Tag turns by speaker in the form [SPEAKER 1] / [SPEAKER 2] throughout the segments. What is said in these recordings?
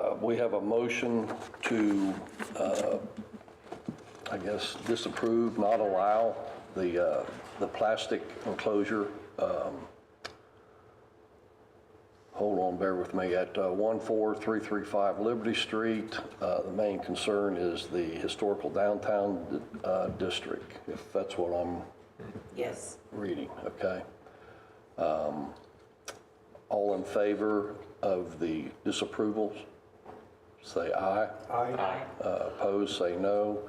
[SPEAKER 1] Uh, we have a motion to, uh, I guess, disapprove, not allow the, uh, the plastic enclosure. um, Hold on, bear with me, at uh, 14335 Liberty Street. uh, The main concern is the historical downtown uh, district, if that's what I'm
[SPEAKER 2] Yes.
[SPEAKER 1] reading, okay? Um, All in favor of the disapprovals, say aye.
[SPEAKER 2] Aye.
[SPEAKER 1] Uh, Opposed, say no.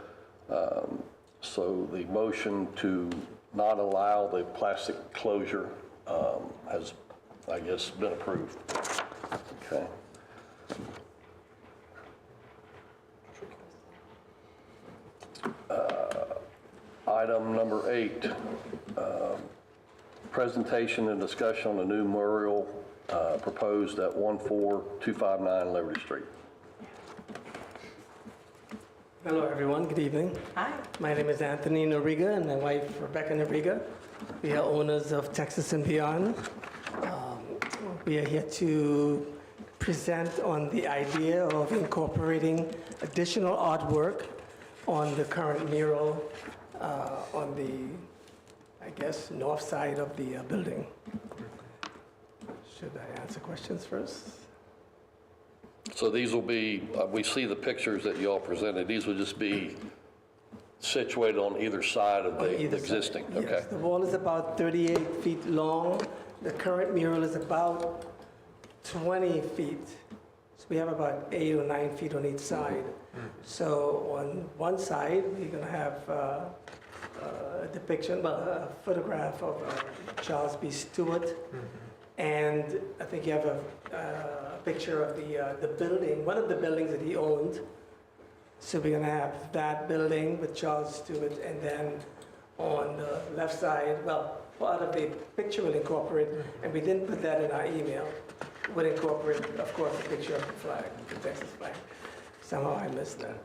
[SPEAKER 1] Um, So the motion to not allow the plastic closure um, has, I guess, been approved. Okay. Uh, Item number eight, um, presentation and discussion on the new memorial uh, proposed at 14259 Liberty Street.
[SPEAKER 3] Hello, everyone. Good evening.
[SPEAKER 2] Hi.
[SPEAKER 3] My name is Anthony Noriga and my wife Rebecca Noriga. We are owners of Texas and Beyond. Um, We are here to present on the idea of incorporating additional artwork on the current mural uh, on the, I guess, north side of the uh, building. Should I answer questions first?
[SPEAKER 1] So these will be, uh, we see the pictures that y'all presented, these will just be situated on either side of the
[SPEAKER 3] Uh, Either
[SPEAKER 1] the
[SPEAKER 3] side.
[SPEAKER 1] existing?
[SPEAKER 3] Yes,
[SPEAKER 1] Okay.
[SPEAKER 3] the wall is about 38 feet long. The current mural is about 20 feet. So we have about eight or nine feet on each side. So on one side, we're going to have uh, a depiction, well, a photograph of uh, Charles B. Stewart. And I think you have a uh, picture of the, uh, the building, one of the buildings that he owned. So we're gonna have that building with Charles Stewart, and then on the left side, well, part of the picture will incorporate, and we didn't put that in our email, would incorporate, of course, a picture of the flag, the Texas flag. Somehow I missed that.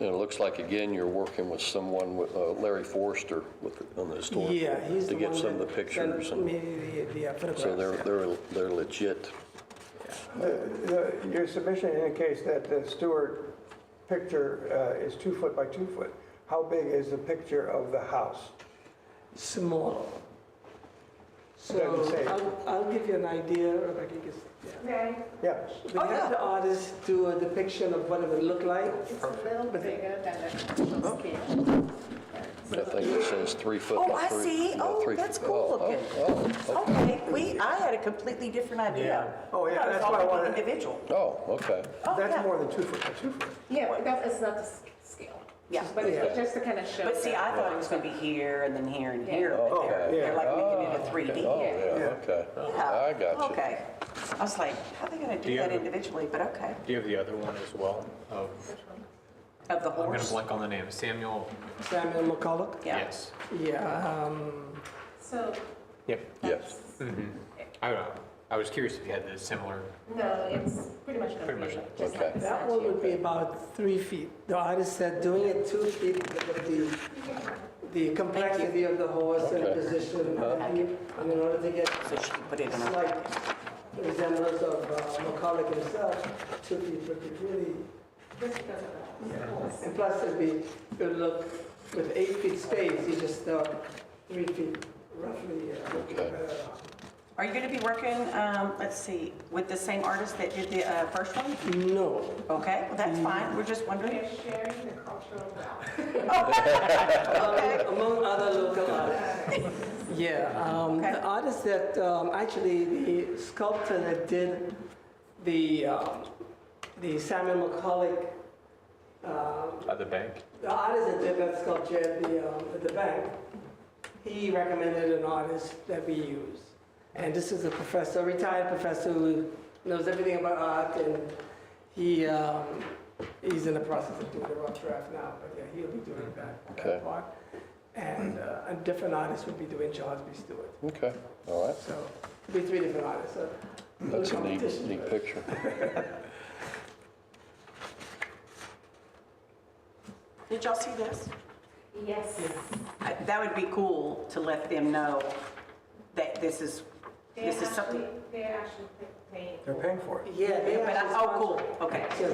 [SPEAKER 1] And it looks like, again, you're working with someone, with uh, Larry Forrester with, on the historical.
[SPEAKER 3] Yeah, he's the
[SPEAKER 1] To
[SPEAKER 3] one that.
[SPEAKER 1] get some of the pictures.
[SPEAKER 3] sent
[SPEAKER 1] and
[SPEAKER 3] me the- the uh,
[SPEAKER 1] So they're,
[SPEAKER 3] photographs.
[SPEAKER 1] they're, they're legit.
[SPEAKER 4] The- the- Your submission indicates that the Stewart picture uh, is two foot by two foot. How big is the picture of the house?
[SPEAKER 3] Small. So
[SPEAKER 4] Doesn't say. Oh,
[SPEAKER 3] I'll, I'll give you an idea, Rebecca, you can s- yeah.
[SPEAKER 2] Okay.
[SPEAKER 4] Yeah,
[SPEAKER 3] We had the artist do a depiction of what it would look like.
[SPEAKER 2] It's a little bigger than the actual skin.
[SPEAKER 1] I think it says three foot
[SPEAKER 2] Oh,
[SPEAKER 1] by
[SPEAKER 2] I
[SPEAKER 1] three.
[SPEAKER 2] see.
[SPEAKER 1] by
[SPEAKER 2] Oh,
[SPEAKER 1] three
[SPEAKER 2] that's
[SPEAKER 1] foot.
[SPEAKER 2] cool
[SPEAKER 1] Oh,
[SPEAKER 2] looking.
[SPEAKER 1] Oh, oh,
[SPEAKER 2] Okay, we, I had a completely different idea.
[SPEAKER 4] Yeah. Oh, yeah,
[SPEAKER 2] I thought it was
[SPEAKER 4] that's why I
[SPEAKER 2] all
[SPEAKER 4] wanted-
[SPEAKER 2] Individual.
[SPEAKER 1] oh, okay.
[SPEAKER 2] Oh, yeah.
[SPEAKER 4] that's more than two foot by two foot.
[SPEAKER 5] Yeah, but that is not the s- scale.
[SPEAKER 2] Yeah.
[SPEAKER 5] But it's
[SPEAKER 4] Yeah.
[SPEAKER 5] just to kind of show.
[SPEAKER 2] But see,
[SPEAKER 5] that-
[SPEAKER 2] I thought it was gonna be here and then here and here, but
[SPEAKER 1] Oh,
[SPEAKER 2] they're,
[SPEAKER 1] yeah.
[SPEAKER 2] they're like making it a
[SPEAKER 1] Ah,
[SPEAKER 2] three D.
[SPEAKER 1] Oh, yeah, okay. I got you.
[SPEAKER 2] Okay. I was like, how are they gonna do
[SPEAKER 6] you
[SPEAKER 2] that
[SPEAKER 6] have a-
[SPEAKER 2] individually, but okay.
[SPEAKER 6] Do you have the other one as well? Of,
[SPEAKER 2] Of the
[SPEAKER 6] I'm gonna
[SPEAKER 2] horse?
[SPEAKER 6] blank on the name, Samuel,
[SPEAKER 3] Samuel McCulloch?
[SPEAKER 2] Yeah.
[SPEAKER 6] yes.
[SPEAKER 3] Yeah, um,
[SPEAKER 5] So,
[SPEAKER 6] Yep.
[SPEAKER 1] Yes.
[SPEAKER 6] I don't know, I was curious if you had the similar,
[SPEAKER 5] no, it's pretty much. gonna
[SPEAKER 6] Pretty
[SPEAKER 5] be
[SPEAKER 6] much,
[SPEAKER 5] just
[SPEAKER 1] okay.
[SPEAKER 5] like the
[SPEAKER 3] that one would
[SPEAKER 5] statue.
[SPEAKER 3] be about three feet. The artist said doing it two feet because of the, the complexity of the horse and the
[SPEAKER 1] Okay. Uh-huh.
[SPEAKER 3] position. And you- and in order to get
[SPEAKER 2] So she can put it in a,
[SPEAKER 3] slight resemblance of uh, McCulloch himself, two feet would be really,
[SPEAKER 5] Just because of that.
[SPEAKER 3] and plus it'd be, it would look, with eight feet space, you just stuck three feet roughly. uh,
[SPEAKER 1] Okay.
[SPEAKER 3] uh,
[SPEAKER 2] are you gonna be working, um, let's see, with the same artist that did the, uh, first one?
[SPEAKER 3] No,
[SPEAKER 2] Okay, well, that's fine, we're just wondering. Oh,
[SPEAKER 5] They're sharing the cultural wealth.
[SPEAKER 3] Among- Among other local artists. Yeah, um,
[SPEAKER 2] Okay.
[SPEAKER 3] the artist that, um, actually, the sculptor that did the, um, the Samuel McCulloch, um,
[SPEAKER 6] uh, the bank.
[SPEAKER 3] the artist that did that sculpture at the, um, at the bank, he recommended an artist that we use. And this is a professor, retired professor who knows everything about art, and he, um, he's in the process of doing the rough draft now, but yeah, he'll be doing that,
[SPEAKER 1] Okay.
[SPEAKER 3] that part. And uh, a different artist would be doing Charles B. Stewart.
[SPEAKER 1] Okay, all right.
[SPEAKER 3] So it'll be three different artists, so. no
[SPEAKER 1] That's a neat,
[SPEAKER 3] competition,
[SPEAKER 1] neat
[SPEAKER 3] but-
[SPEAKER 1] picture.
[SPEAKER 2] Did y'all see this?
[SPEAKER 5] Yes.
[SPEAKER 2] I- That would be cool to let them know that this is,
[SPEAKER 5] They're
[SPEAKER 2] this is something.
[SPEAKER 5] actually, they're actually paying.
[SPEAKER 4] They're paying for it.
[SPEAKER 3] Yeah. they
[SPEAKER 2] But I-
[SPEAKER 3] actually
[SPEAKER 2] Oh, cool, okay.
[SPEAKER 3] sponsor-